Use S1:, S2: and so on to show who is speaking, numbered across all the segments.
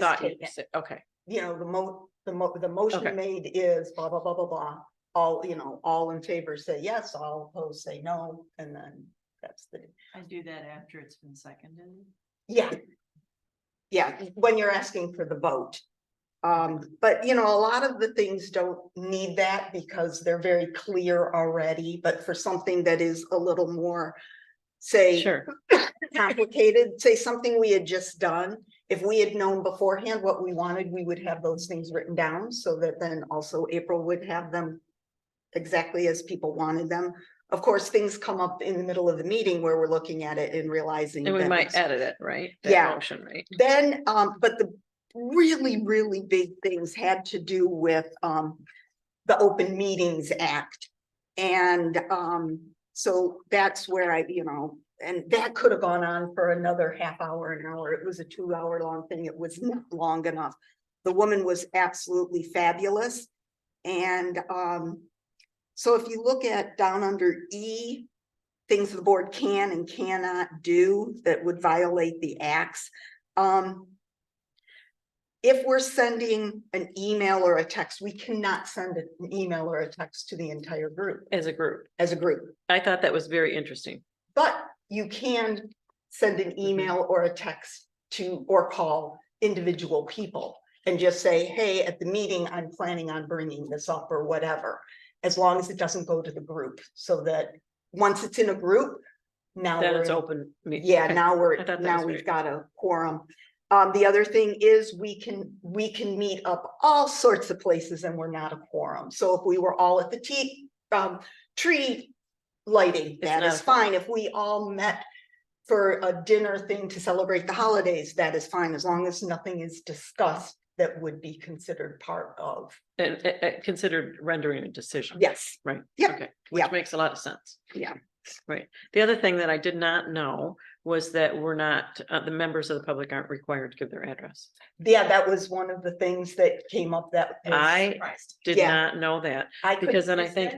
S1: thought you
S2: taken.
S1: said, okay,
S2: you know, the mo, the mo, the motion
S1: Okay.
S2: made is blah, blah, blah, blah, blah. All, you know, all in favor say yes, all opposed say no, and then that's the,
S3: I do that after it's been seconded.
S2: yeah. Yeah, when you're asking for the vote. Um, but you know, a lot of the things don't need that because they're very clear already, but for something that is a little more. Say,
S1: sure,
S2: complicated, say something we had just done. If we had known beforehand what we wanted, we would have those things written down so that then also April would have them exactly as people wanted them. Of course, things come up in the middle of the meeting where we're looking at it and realizing.
S1: and we
S2: that
S1: might
S2: it's-
S1: edit it, right? That
S2: Yeah.
S1: Motion, right?
S2: Then, um, but the really, really big things had to do with, um, the Open Meetings Act. And, um, so that's where I, you know, and that could have gone on for another half hour, an hour. It was a two hour long thing. It was not long enough. The woman was absolutely fabulous. And, um, so if you look at down under E, things the board can and cannot do that would violate the acts. Um. If we're sending an email or a text, we cannot send an email or a text to the entire group
S1: As a group.
S2: as a group.
S1: I thought that was very interesting.
S2: But you can send an
S1: Mm-hmm.
S2: email or a text to or call individual people. And just say, hey, at the meeting, I'm planning on bringing this up or whatever, as long as it doesn't go to the group. So that once it's in a group, now.
S1: Then
S2: we're
S1: it's
S2: in-
S1: open. me-
S2: yeah,
S1: okay.
S2: now
S1: I
S2: we're,
S1: thought that
S2: now
S1: was
S2: we've
S1: great.
S2: got a quorum. Um, the other thing is we can, we can meet up all sorts of places and we're not a quorum. So if we were all at the tea, um, tree lighting, that
S1: not
S2: is
S1: a quorum.
S2: fine. If we all met for a dinner thing to celebrate the holidays, that is fine, as long as nothing is discussed that would be considered part of,
S1: And, uh, uh, considered rendering a decision.
S2: yes.
S1: Right.
S2: Yep,
S1: Okay,
S2: yep.
S1: which makes a lot of sense.
S2: Yeah.
S1: Right. The other thing that I did not know was that we're not, uh, the members of the public aren't required to give their address.
S2: Yeah, that was one of the things that came up that. was-
S1: I did
S2: Yeah.
S1: not know that,
S2: I could
S1: because then I think,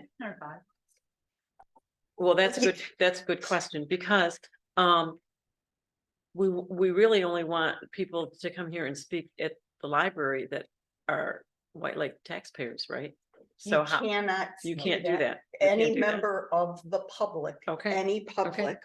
S1: Well, that's a
S2: Yeah.
S1: good, that's a good question, because, um. We, we really only want people to come here and speak at the library that are White Lake taxpayers, right? So
S2: you
S1: how,
S2: cannot.
S1: you
S2: say
S1: can't do that. You can't
S2: any
S1: do that.
S2: member of the public,
S1: Okay,
S2: any public.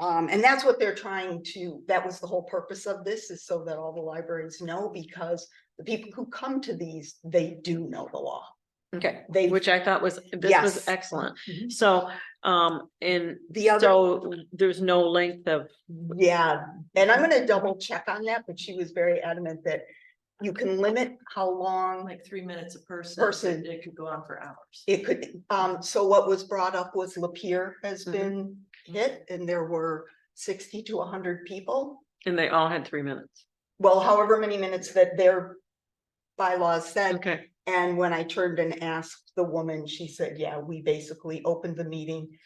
S2: Um, and that's what they're trying to, that was the whole purpose of this, is so that all the libraries know, because the people who come to these, they do know the law.
S1: okay,
S2: They,
S1: which I thought was, this was
S2: Yes.
S1: excellent.
S2: Mhm.
S1: So, um, and
S2: the other,
S1: so there's no length of,
S2: yeah, and I'm gonna double check on that, but she was very adamant that you can limit how long
S3: Like three minutes a person.
S2: Person.
S3: but It could go on for hours.
S2: It could, um, so what was brought up was Lapeer has
S1: Mhm.
S2: been hit, and there were sixty to hundred people.
S1: and they all had three minutes.
S2: well, however many minutes that their bylaws said.
S1: Okay,
S2: And when I turned and asked the woman, she said, yeah, we basically opened the meeting,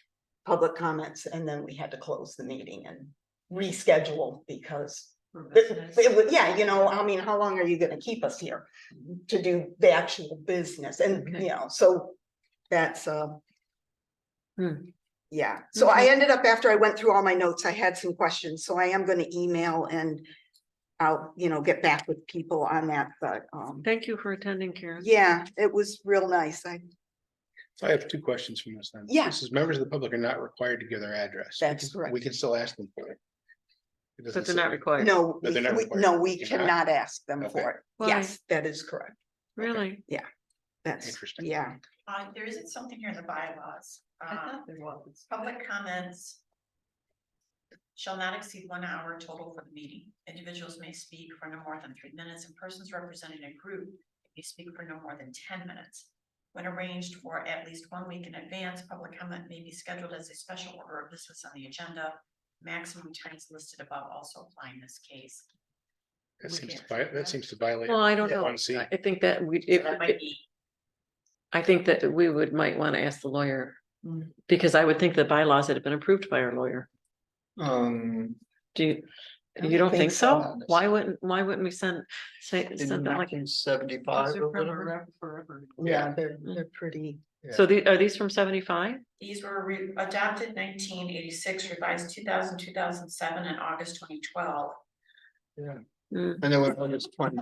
S2: public comments, and then we had to close the meeting and reschedule because
S3: for
S2: it,
S3: business.
S2: it was, yeah, you know, I mean, how long are you gonna keep us here to do the actual business? And,
S1: Okay.
S2: you know, so that's, uh,
S1: Hmm.
S2: yeah, so
S1: Mm-hmm.
S2: I ended up, after I went through all my notes, I had some questions, so I am gonna email and I'll, you know, get back with people on that, but, um,
S1: thank you for attending, Karen.
S2: yeah, it was real nice. I,
S4: I have two questions from this then.
S2: Yeah.
S4: This is members of the public are not required to give their address. We
S2: That's
S4: can-
S2: correct.
S4: We can still ask them for it. It doesn't
S1: But they're
S4: say-
S1: not required.
S2: no,
S4: But
S2: we-
S4: they're not
S2: we-
S4: required.
S2: no, we
S4: You're not?
S2: cannot ask them
S4: Okay.
S2: for it.
S1: Why?
S2: Yes, that is correct.
S1: Really?
S2: That's,
S4: Interesting.
S2: yeah,
S5: Uh, there isn't something here in the bylaws,
S3: I
S5: uh,
S1: Uh-huh.
S3: thought there was.
S5: public comments. Shall not exceed one hour total for the meeting. Individuals may speak for no more than three minutes and persons representing a group may speak for no more than ten minutes. When arranged for at least one week in advance, public comment may be scheduled as a special order of business on the agenda. Maximum times listed above also apply in this case.
S4: That
S3: we
S4: seems to
S3: can't
S4: vi-
S3: say
S4: that
S3: that.
S4: seems to violate.
S1: Well, I don't
S4: Yeah.
S1: know.
S4: One C.
S1: I I think that we,
S5: So
S1: if,
S5: That
S1: if-
S5: might be,
S1: I think that we would, might want to ask the lawyer.
S3: Mm.
S1: Because I would think the bylaws had been approved by our lawyer.
S6: Um,
S1: Do you,
S6: I
S1: you don't think so?
S6: on this.
S1: Why wouldn't, why wouldn't we send, say,
S6: in
S1: send that like?
S6: nineteen
S3: Those
S6: seventy-five
S3: are
S6: or
S3: from
S6: whatever.
S3: forever- Forever.
S2: yeah, they're,
S1: Mm.
S2: they're pretty.
S1: So the, are these from seventy-five?
S5: these were re- adopted nineteen eighty-six, revised 2000, 2007, and August twenty twelve.
S6: And then when I was twenty